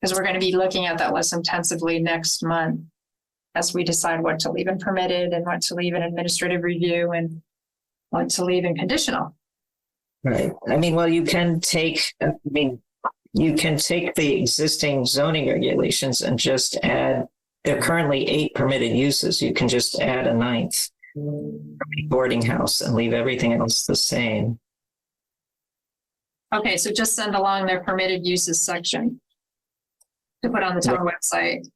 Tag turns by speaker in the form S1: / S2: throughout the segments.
S1: Because we're going to be looking at that less intensively next month as we decide what to leave in permitted and what to leave in administrative review and what to leave in conditional.
S2: Right. I mean, well, you can take, I mean, you can take the existing zoning regulations and just add, there are currently eight permitted uses. You can just add a ninth Mm. boarding house and leave everything else the same.
S1: Okay, so just send along their permitted uses section to put on the town website.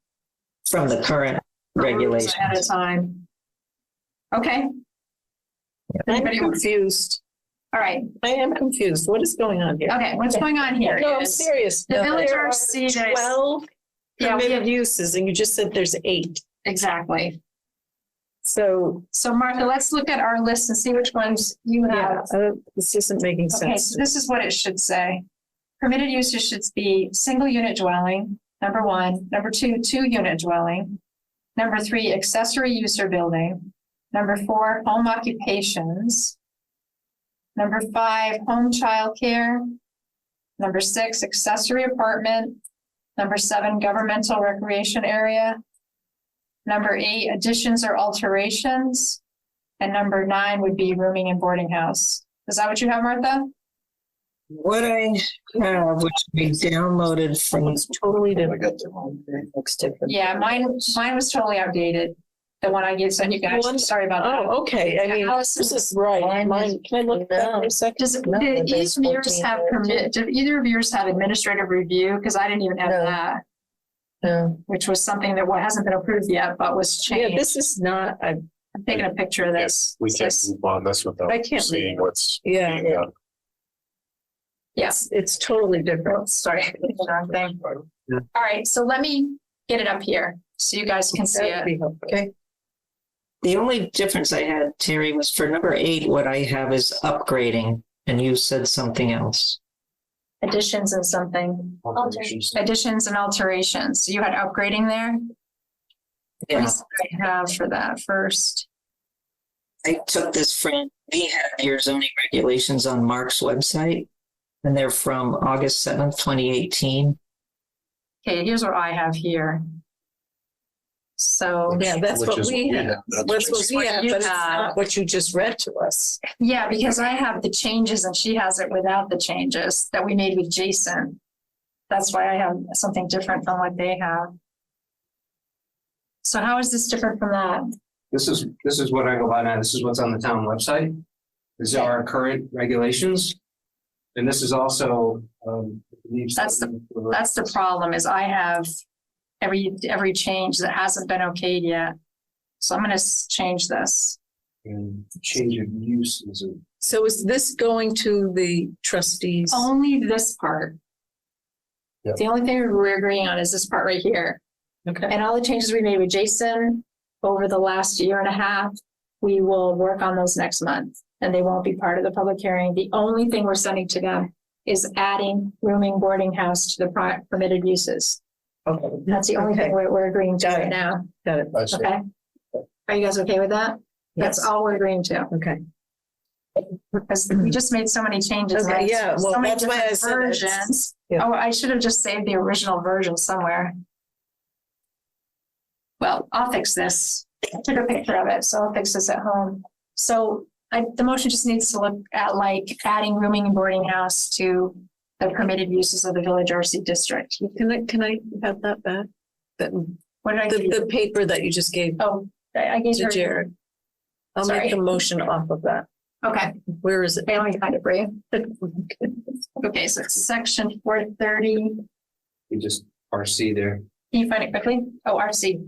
S2: From the current regulations.
S1: At a time. Okay,
S3: I'm
S1: Anybody want-
S3: confused.
S1: all right,
S3: I am confused. What is going on here?
S1: okay, what's going on here
S3: No, I'm
S1: is-
S3: serious.
S1: The
S3: There
S1: villager
S3: are
S1: sees it.
S3: Twelve
S1: Yeah, we have-
S3: permitted uses and you just said there's eight.
S1: exactly.
S3: So,
S1: So Martha, let's look at our list and see which ones you
S3: yeah,
S1: have.
S3: uh, this isn't making
S1: Okay,
S3: sense.
S1: so this is what it should say. Permitted uses should be single unit dwelling, number one. Number two, two unit dwelling. Number three, accessory use or building. Number four, home occupations. Number five, home childcare. Number six, accessory apartment. Number seven, governmental recreation area. Number eight, additions or alterations. And number nine would be rooming and boarding house. Is that what you have, Martha?
S2: What I have, which we downloaded from,
S3: It's totally different. Looks different.
S1: Yeah, mine, mine was totally outdated. The one I gave, so you guys,
S3: One-
S1: sorry about that.
S3: Oh, okay. I mean, this
S1: Allison,
S3: is right. Mine, can I look at that for a second?
S1: does,
S4: no,
S1: did
S4: there's
S1: each of yours
S4: 14
S1: have
S4: there,
S1: permit, did either of yours have administrative review? Because I didn't even have
S4: No.
S1: that,
S4: No,
S1: which was something that wa- hasn't been approved yet, but was
S3: Yeah,
S1: changed.
S3: this is not, I,
S1: I'm taking a picture of this.
S5: We can't
S1: This-
S5: move on this without
S3: I can't
S5: seeing
S3: read it.
S5: what's
S3: yeah,
S5: being done.
S3: it's, it's totally
S1: Oh,
S3: different.
S1: Sorry. Wrong thing. All right, so let me get it up here so you guys can see
S3: That would
S1: it.
S3: be helpful.
S2: the only difference I had, Terry, was for number eight, what I have is upgrading, and you said something else.
S1: Additions and something,
S5: Alterations.
S1: additions and alterations. You had upgrading there? Let me
S2: Yeah.
S1: see what I have for that first.
S2: I took this from, we have your zoning regulations on Mark's website. And they're from August seventh, twenty eighteen.
S1: Okay, here's what I have here. So,
S3: Yeah, that's
S5: Which
S3: what
S5: is
S3: we
S5: what we
S3: have.
S5: have. That's
S3: That's what we
S1: what
S3: have,
S1: you
S3: but it's
S1: have.
S3: not what you just read to us.
S1: yeah, because I have the changes and she has it without the changes that we made with Jason. That's why I have something different from what they have. So how is this different from that?
S6: This is, this is what I go by now. This is what's on the town website. These are our current regulations. And this is also, um. I believe-
S1: That's That's the problem is I have every, every change that hasn't been okayed yet. So I'm gonna s- change this.
S6: And change of uses and
S3: So is this going to the trustees?
S1: Only this part.
S5: Yeah.
S1: The only thing we're agreeing on is this part right here.
S3: Okay.
S1: And all the changes we made with Jason over the last year and a half, we will work on those next month. And they won't be part of the public hearing. The only thing we're sending to them is adding rooming boarding house to the pri- permitted uses.
S3: Okay.
S1: That's the only thing
S3: Okay.
S1: we're, we're agreeing to
S3: Got
S1: right
S3: it.
S1: now,
S3: Got it.
S5: I see.
S1: okay? Are you guys okay with that? That's all we're agreeing to,
S3: Okay.
S1: because we just made so many changes.
S3: Mm-hmm. Okay,
S1: right?
S3: yeah, well,
S1: So many
S3: that's why I
S1: different
S3: said it's-
S1: versions.
S3: Yeah.
S1: Oh, I should have just saved the original version somewhere. Well, I'll fix this. I took a picture of it, so I'll fix this at home. So I, the motion just needs to look at like adding rooming and boarding house to the permitted uses of the Village RC district.
S3: Can I, can I have that back? That,
S1: What did I give
S3: the,
S1: you?
S3: the paper that you just gave
S1: Oh, I I gave
S3: to
S1: her,
S3: Jared. I'll make a
S1: Sorry.
S3: motion off of that.
S1: okay,
S3: Where is it?
S1: I only kind of brief. Okay, so it's section four thirty.
S6: you just RC there.
S1: Can you find it quickly? Oh, RC,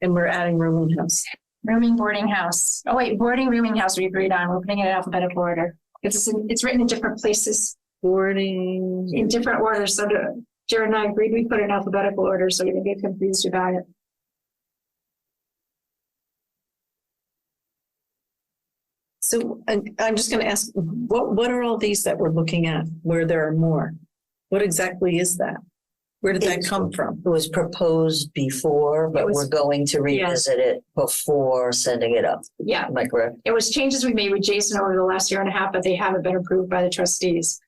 S3: And we're adding room and house.
S1: rooming boarding house. Oh wait, boarding rooming house we agreed on. We're putting it in alphabetical order. It's, it's written in different places.
S3: Boarding.
S1: in different orders, so to- Jared and I agreed, we put it in alphabetical order, so we didn't get confused about it.
S3: So and I'm just going to ask, what, what are all these that we're looking at where there are more? What exactly is that? Where did that come from?
S4: it was proposed before, but
S1: was-
S4: we're going to
S1: Yeah.
S4: revisit it before sending it up.
S1: Yeah,
S4: Am I correct?
S1: it was changes we made with Jason over the last year and a half, but they haven't been approved by the trustees.